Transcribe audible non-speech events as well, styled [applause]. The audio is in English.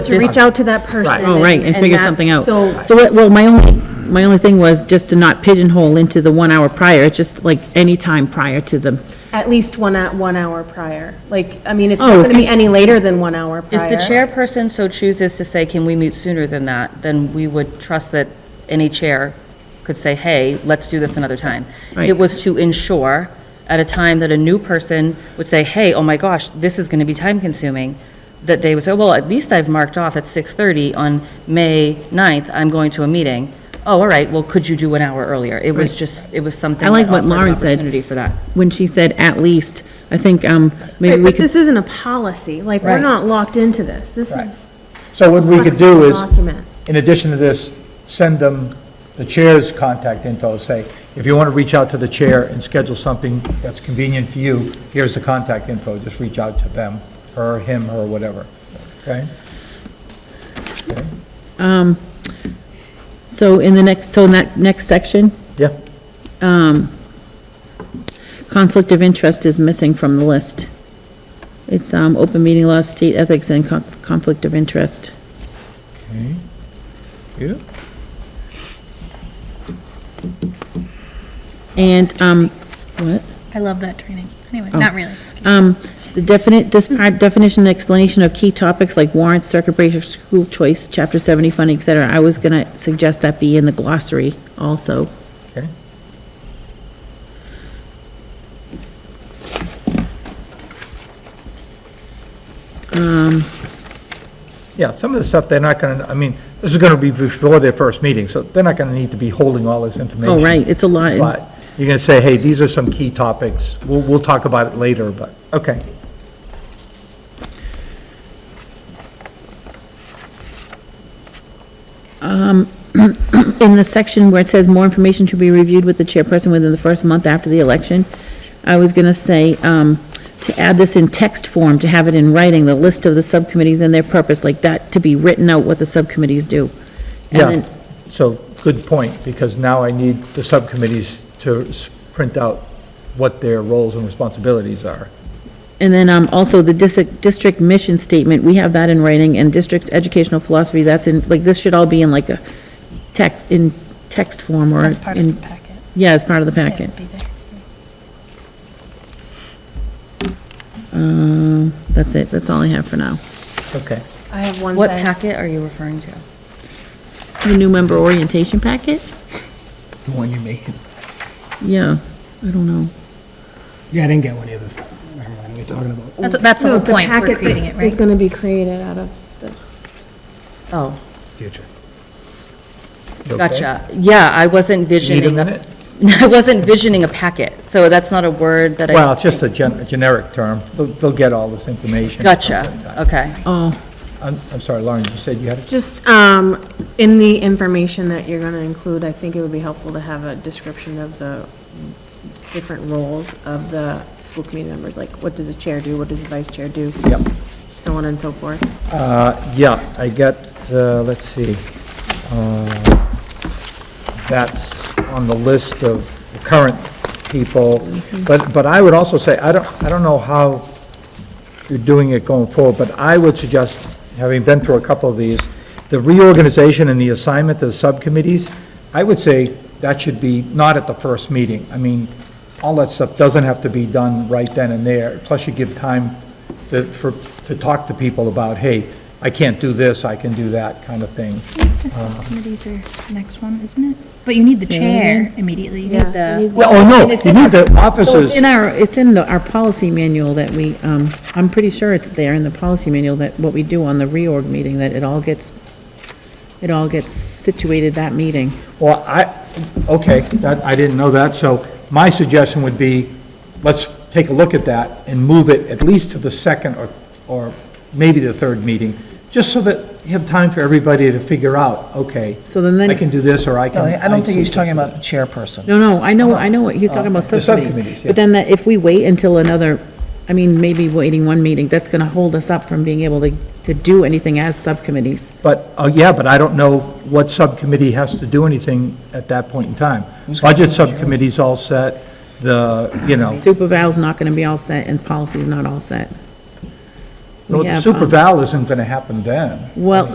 To reach out to that person. Oh, right, and figure that- something out. So, So, what- well, my only, my only thing was just to not pigeonhole into the one hour prior, it's just like any time prior to the, at least one, at one hour prior. Like, I mean, it's Oh, not going if to be any later than one hour If prior. the chairperson so chooses to say, can we meet sooner than that, then we would trust that any chair could say, hey, let's do this another time. It Right. was to ensure at a time that a new person would say, hey, oh my gosh, this is going to be time consuming, that they would say, well, at least I've marked off at 6:30 on May 9th, I'm going to a meeting. Oh, all right, well, could you do an hour earlier? It was Right. just, it was something. I like that what offered an Lauren said. Opportunity for that. when she said at least, I think, um, maybe Right, we But could, this isn't a policy, like, we're Right. not locked into this. This is. So what we could do flexible is, Document. in addition to this, send them the chair's contact info, say, if you want to reach out to the chair and schedule something that's convenient for you, here's the contact info, just reach out to them, her, him, or whatever, okay? um, so in the next, so in that next section, Yeah. conflict of interest is missing from the list. It's, um, open meeting law, state ethics, and con- conflict of interest. Okay. Yeah. And, um, what? I love that training. Anyway, not really. Um, the definite, describe definition and explanation of key topics like warrants, circuit breaker, school choice, chapter seventy funding, et cetera. I was gonna suggest that be in the glossary also. Okay. Um, Yeah, some of the stuff, they're not going to, I mean, this is going to be before their first meeting, so they're not going to need to be holding all this information. Oh, right, it's a lot. But you're going to say, hey, these are some key topics. We'll, we'll talk about it later, but, okay. In the section where it says more information should be reviewed with the chairperson within the first month after the election, I was gonna say, um, to add this in text form, to have it in writing, the list of the subcommittees and their purpose, like that, to be written out what the subcommittees do. And Yeah, then- so, good point, because now I need the subcommittees to s- print out what their roles and responsibilities are. And then um, also the dis- district mission statement, we have that in writing, and district's educational philosophy, that's in, like, this should all be in like a text, in text form or That's part of in, the packet. yeah, as part of the packet. It'd be there. Um, That's it, that's all I have for now. Okay. I have one What thing. packet are you referring to? The new member orientation packet? The one you're making. Yeah, I don't know. Yeah, I didn't get one either. so Never mind, we're talking about. That's, that's the whole point, we're creating it, It's right? going to be created out of this. Oh. Future. You okay? Gotcha. Yeah, I wasn't Need a visioning, a- minute? [laughs] I wasn't visioning a packet, so that's not a word that I. Well, it's just a gen- generic term. They'll, they'll get all this information. Gotcha, okay. Oh, I'm, I'm sorry, Lauren, you said you had, a- Just, um, in the information that you're gonna include, I think it would be helpful to have a description of the different roles of the school committee members, like what does a chair do, what does a vice chair do? Yep. So on and so forth. uh, yeah, I got, uh, let's see. Uh, That's on the list of the current people. But, but I would also say, I don't, I don't know how you're doing it going forward, but I would suggest, having been through a couple of these, the reorganization and the assignment to the subcommittees, I would say that should be not at the first meeting. I mean, all that stuff doesn't have to be done right then and there, plus you give time to, for, to talk to people about, hey, I can't do this, I can do that, kind of thing. The subcommittees are next one, isn't it? But you need the chair immediately. You need The- We need- Well, oh, no, you need the so it's officers, in our, it's in the, our policy manual that we, um, I'm pretty sure it's there in the policy manual that what we do on the reorg meeting, that it all gets, it all gets situated that meeting. well, I, okay, that, I didn't know that, so my suggestion would be, let's take a look at that and move it at least to the second or, or maybe the third meeting, just so that you have time for everybody to figure out, okay, So then- then- I can do this, or I can. No, I don't think he's talking about the this. chairperson. No, no, I know, I know what, he's talking about Uh-huh. The subcommittees. subcommittees, yeah. But then that, if we wait until another, I mean, maybe waiting one meeting, that's gonna hold us up from being able to, to do anything as subcommittees. But, uh, yeah, but I don't know what subcommittee has to do anything at that point in time. Budget subcommittee's all set, the, you know, Super Val's not gonna be all set, and policy's not all set. We No, have, Super um, Val isn't going to happen then. Well,